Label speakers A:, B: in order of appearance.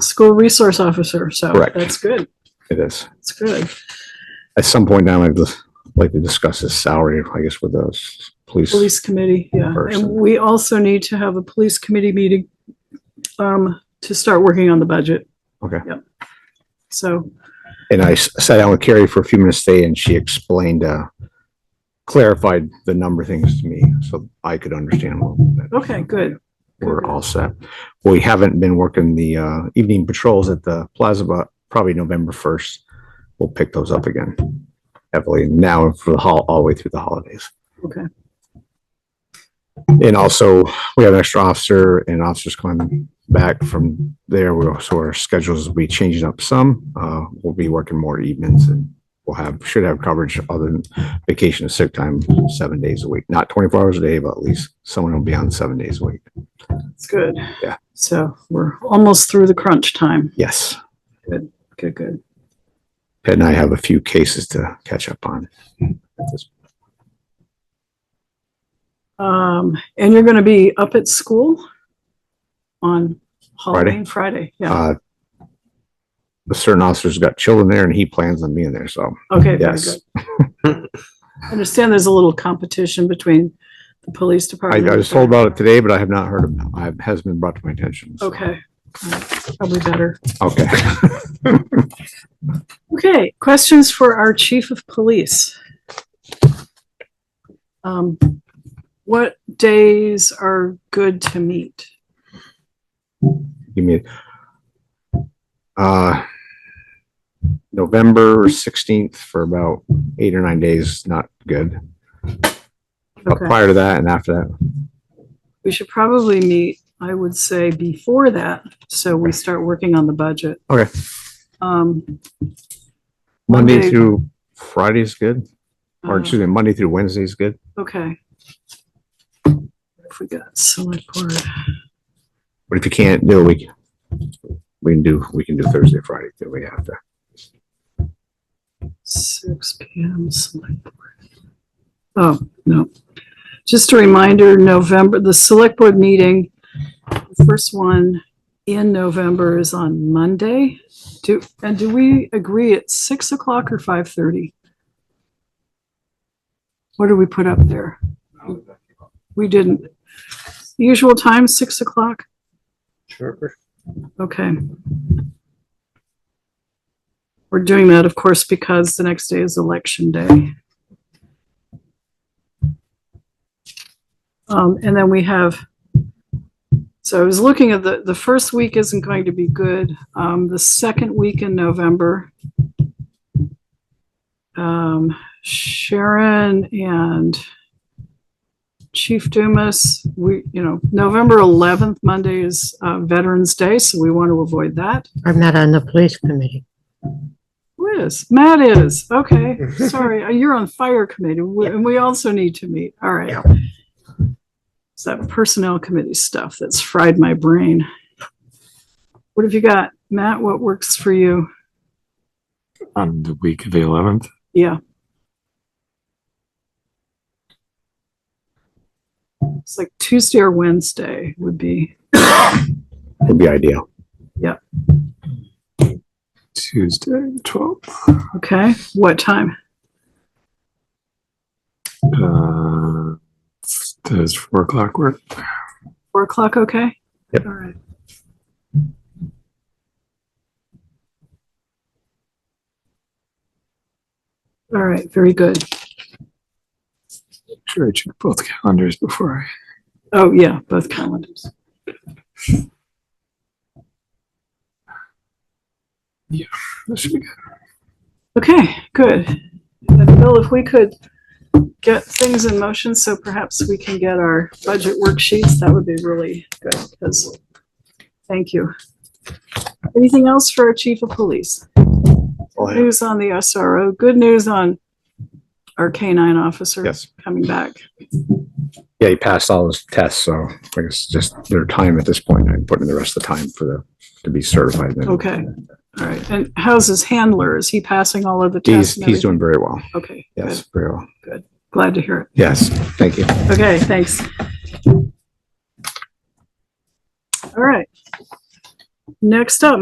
A: school resource officer, so
B: Correct.
A: that's good,
B: It is.
A: that's good.
B: At some point now, I'd like to discuss his salary, I guess, with the s- police.
A: Police committee, yeah. And
B: Person.
A: we also need to have a police committee meeting um, to start working on the budget.
B: Okay.
A: Yep. So,
B: And I s- sat down with Carrie for a few minutes today and she explained, uh, clarified the number things to me so I could understand a little bit.
A: okay, good.
B: We're all set. We haven't been working the, uh, evening patrols at the plaza, but probably November first. We'll pick those up again heavily now and for the hol, all the way through the holidays.
A: Okay.
B: And also, we have an extra officer and officers coming back from there. We're, so our schedules will be changing up some. Uh, we'll be working more evenings and we'll have, should have coverage other than vacation and sick time, seven days a week. Not twenty-four hours a day, but at least someone will be on seven days a week.
A: It's good.
B: Yeah.
A: So we're almost through the crunch time.
B: Yes.
A: Good, good.
B: Pat and I have a few cases to catch up on.
A: Um, and you're gonna be up at school on Halloween, Friday? Yeah,
B: Uh, The certain officer's got children there and he plans on being there, so
A: okay, very
B: yes.
A: good. I Understand there's a little competition between the police
B: I, I
A: department.
B: was told about it today, but I have not heard about it. It has been brought to my attention. so-
A: Okay, Alright, uh, probably better.
B: Okay.
A: Okay, questions for our chief of police? Um, what days are good to meet?
B: Give me. Uh, November sixteenth for about eight or nine days, not good. But
A: Okay.
B: Prior to that and after that,
A: We should probably meet, I would say, before that, so we start working on the budget.
B: Okay.
A: Um.
B: Monday through Friday is good, or
A: uh,
B: excuse me, Monday through Wednesday is good.
A: Okay. If we got select board,
B: But if you can't do, it, we, we can do, we can do Thursday, Friday, too. we have to.
A: six P M, select board. Oh, no. Just a reminder, November, the select board meeting, the first one in November is on Monday. Do, and do we agree at six o'clock or five thirty? What do we put up there? We didn't. Usual time, six o'clock? Sure. Okay. We're doing that, of course, because the next day is election day. Um, and then we have, so I was looking at the, the first week isn't going to be good. Um, the second week in November. Um, Sharon and Chief Dumas, we, you know, November 11th, Monday is uh, Veterans Day, so we want to avoid that.
C: I'm not on the police committee.
A: Who is? Matt is. Okay. Sorry. Uh, You're on fire committee we- and we also need to meet. All right. It's that personnel committee stuff that's fried my brain. What have you got? Matt, what works for you?
D: on the week of the 11th.
A: Yeah. It's like Tuesday or Wednesday would be,
B: Would be ideal.
D: Tuesday, 12th.
A: okay? What time?
D: Uh, does 4 o'clock work?
A: Four o'clock, okay?
B: Yep.
A: All right. All right, very good.
D: Sure, I check both calendars before
A: Oh, yeah, both calendars.
D: I. That should be good.
A: Okay, good. And Bill, if we could get things in motion, so perhaps we can get our budget worksheets, that would be really good, because, thank you. Anything else for our chief of police? News on the SRO, good news on our K-9 officer
B: Yes.
A: coming back.
B: Yeah, he passed all his tests, so I guess just their time at this point, I'm putting the rest of the time for the, to be certified. then.
A: Okay, all right. And how's his handler? Is he passing all of the
B: He's,
A: tests? and
B: he's doing very well.
A: everything? Okay, good.
B: Yes, very well.
A: Glad to hear it.
B: Yes, thank you.
A: Okay, thanks. All right. Next up,